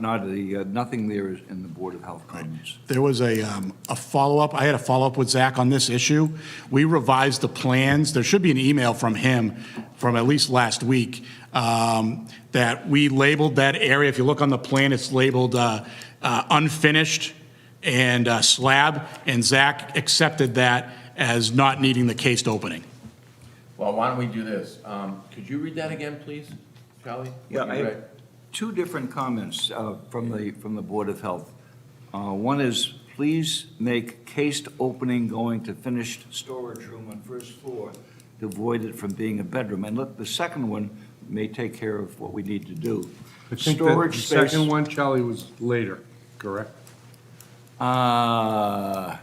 Not the, uh, nothing there is in the Board of Health comments. There was a, um, a follow-up, I had a follow-up with Zach on this issue. We revised the plans, there should be an email from him from at least last week, um, that we labeled that area, if you look on the plan, it's labeled uh, uh, unfinished and uh, slab, and Zach accepted that as not needing the cased opening. Well, why don't we do this? Um, Could you read that again, please, Charlie? Yeah, What you I- read? Two different comments uh, from the, from the Board of Health. Uh, One is, please make cased opening going to finished storage room on first floor to avoid it from being a bedroom. And look, the second one may take care of what we need to do. I think that the Storage space. second one, Charlie, was later, correct? Uh,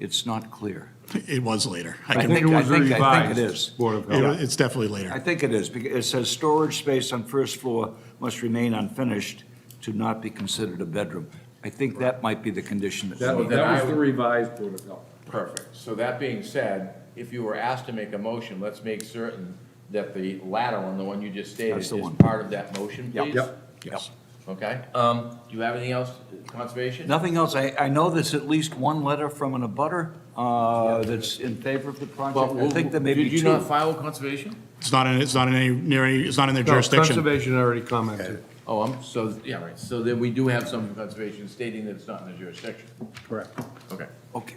It's not clear. It was later. I I can- think- it was I think- I think it revised, is. Board of it wa- Health. It's definitely I later. think it is, because it says storage space on first floor must remain unfinished to not be considered a bedroom. I think that might be the condition that we That need. then that I was the would- revised Board of Health. Perfect. So that being said, if you were asked to make a motion, let's make certain that the latter one, the one you just stated, That's is the one. part of that motion, please? Yes. Okay. Um, Do you have anything else, Conservation? Nothing else, I, I know there's at least one letter from an abutter uh, that's in favor of the project. I think there may be Did you not two. file with Conservation? It's not in, it's not in any, near any, it's not in their No, jurisdiction. Conservation already commented. Oh, I'm, so, yeah, right. So then we do have some from Conservation stating that it's not in the jurisdiction. Correct. Okay. Okay,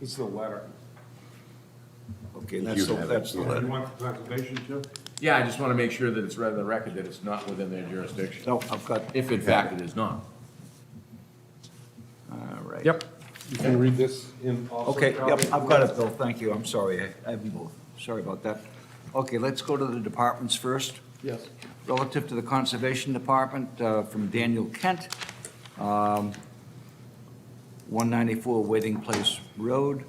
It's the letter. okay, that's, the- that's the letter. want the Conservation too? Yeah, I just want to make sure that it's read in the record that it's not within their jurisdiction. No, I've got, If in fact it is not. all right. Yep. You can read this in also. Okay, yep, Charlie. I've got it, Bill, thank you, I'm sorry, I- I haven't both, sorry about that. Okay, let's go to the departments first. Yes. Relative to the Conservation Department, uh, from Daniel Kent, um, 194 Waiting Place Road,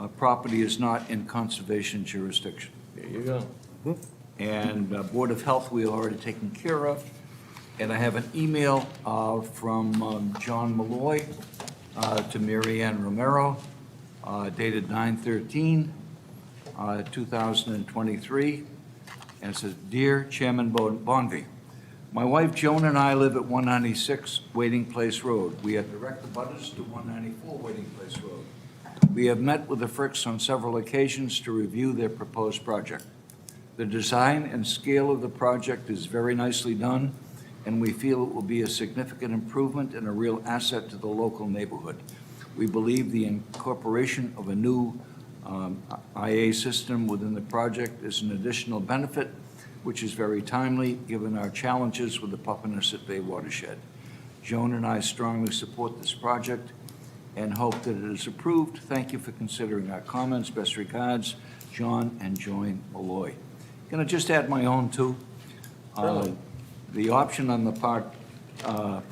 Uh, property is not in conservation jurisdiction. There you go. And uh, Board of Health, we have already taken care of. And I have an email uh, from um, John Malloy uh, to Mary Ann Romero uh, dated 9/13, uh, 2023 and it says, "Dear Chairman Bon- Bonvy, my wife Joan and I live at 196 Waiting Place Road. We are direct abutters to 194 Waiting Place Road. We have met with the Fricks on several occasions to review their proposed project. The design and scale of the project is very nicely done, and we feel it will be a significant improvement and a real asset to the local neighborhood. We believe the incorporation of a new um, IA system within the project is an additional benefit, which is very timely, given our challenges with the Papaneset Bay watershed. Joan and I strongly support this project and hope that it is approved. Thank you for considering our comments. Best regards, John and Joan Malloy. Can I just add my own, too? Uh, The option on the part uh,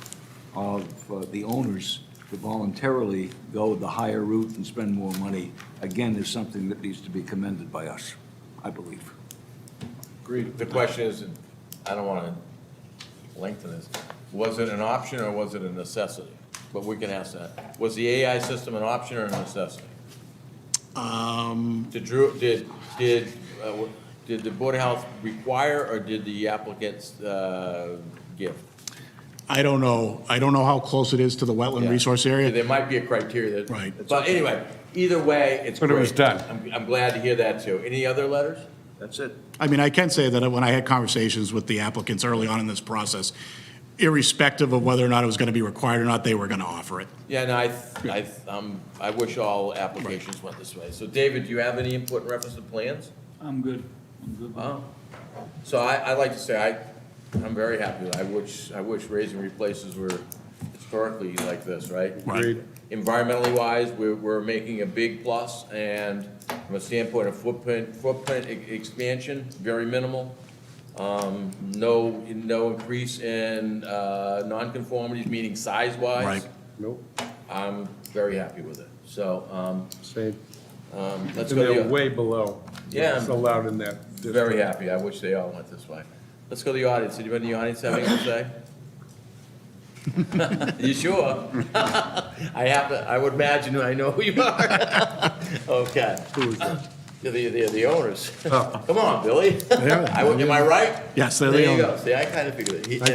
of uh, the owners to voluntarily go the higher route and spend more money, again, is something that needs to be commended by us, I believe. Agreed. The question is, and I don't want to lengthen this, was it an option or was it a necessity? But we can ask that. Was the AI system an option or a necessity? Um, Did Drew, did, did, uh, w- did the Board of Health require or did the applicants uh, give? I don't know, I don't know how close it is to the wetland Yeah. resource area. There might be a criteria that. Right. But anyway, either way, it's great. But it was done. I'm, I'm glad to hear that too. Any other letters? That's it. I mean, I can say that when I had conversations with the applicants early on in this process, irrespective of whether or not it was going to be required or not, they were going to offer it. Yeah, no, I, th- I, th- um, I wish all applications went this way. So David, do you have any input in reference to plans? I'm good, I'm good. with it. Wow. So I, I like to say, I, I'm very happy. with it. I wish, I wish raising replaces were historically like this, right? Right. Agreed. Environmentally wise, we're, we're making a big plus, and from a standpoint of footprint, footprint e- expansion, very minimal. Um, no, no increase in, uh, nonconformities, meaning size-wise. Right. Nope, I'm very happy with it. So, um, same. um, let's And go to they're the, way below. Yeah. It's allowed in that. district. very happy. I wish they all went this way. Let's go to the audience. Anybody in the audience have anything to say? You sure? I have to, I would imagine I know who you are. Okay. Who is it? They're the, they're the owners. Come on, Billy. are. I, would- am I right? Yes, they're the Oh. There you go. owners. See, I kind of figured it. He-